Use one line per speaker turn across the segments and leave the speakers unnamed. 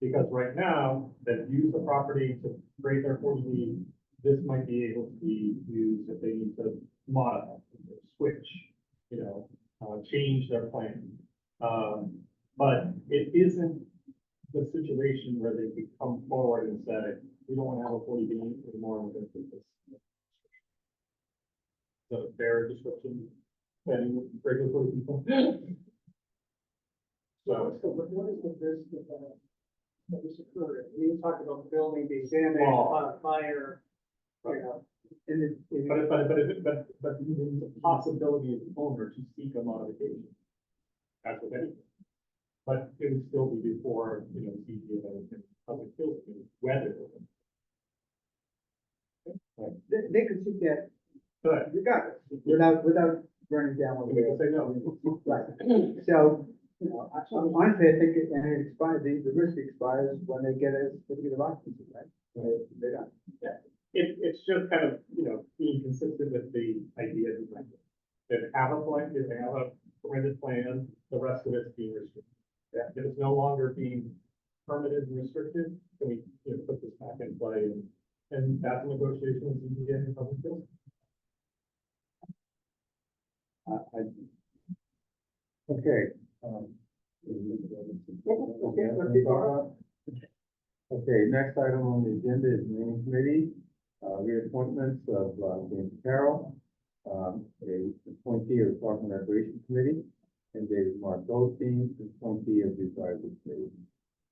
Because right now, that use the property to create their forty B, this might be able to be used if they need to modify, switch, you know, uh, change their plan. Um, but it isn't the situation where they could come forward and say, we don't want to have a forty B anymore, we're gonna take this. So fair description, and regulatory people. So,
So what what is the risk of that? That this occurred, we talked about building being damaged
Well-
by a fire, you know, and it, it-
but, but, but, but, but the possibility of the owner to seek a modification. That's what anything. But it would still be before, you know, the CBA and public field, whether.
they, they could see that
But
regardless, without, without burning down what
we
we
can say no.
Right, so, you know, I- so honestly, I think, it- and it expires, the, the risk expires when they get a certificate of occupancy, right? They, they don't.
It, it's just kind of, you know, being consistent with the idea of the blanket. If they have a plan, if they have a permitted plan, the rest of it's being restricted.
Yeah.
If it's no longer being permitted and restricted, then we, you know, put this back in play and, and that's a negotiation with ZBA and public health.
I, I. Okay, um. Okay, let's keep going. Okay, next item on the agenda is naming committee, uh, reappointments of, uh, James Carroll, um, a appointee of the Park and Recreation Committee, and David Mark Goldstein, appointee of the Advisory Committee.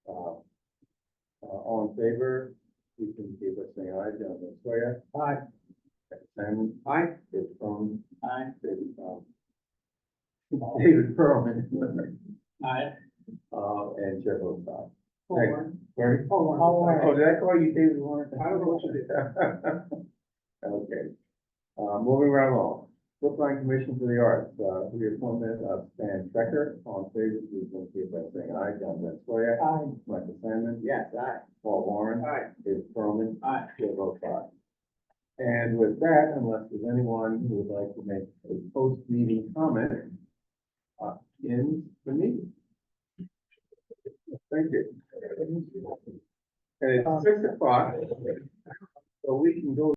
Uh, uh, all in favor, you can give us an aye, Jonathan Sawyer. Aye. Simon. Aye. David Cronin. Aye. David, um, David Perlman.
Aye.
Uh, and Chair votes aye.
Four.
Barry?
Four.
Oh, did I call you David Warren?
I don't know what you
did. Okay. Uh, moving right along. Brookline Commission for the Arts, uh, reappointment of Stan Becker, on favor, please indicate by saying aye. John Vanstoya.
Aye.
Michael Simon.
Yes, aye.
Paul Warren.
Aye.
David Perlman.
Aye.
Chair votes aye. And with that, unless there's anyone who would like to make a post-meeting comment, uh, in the meeting. Thank you. And it's six o'clock, so we can go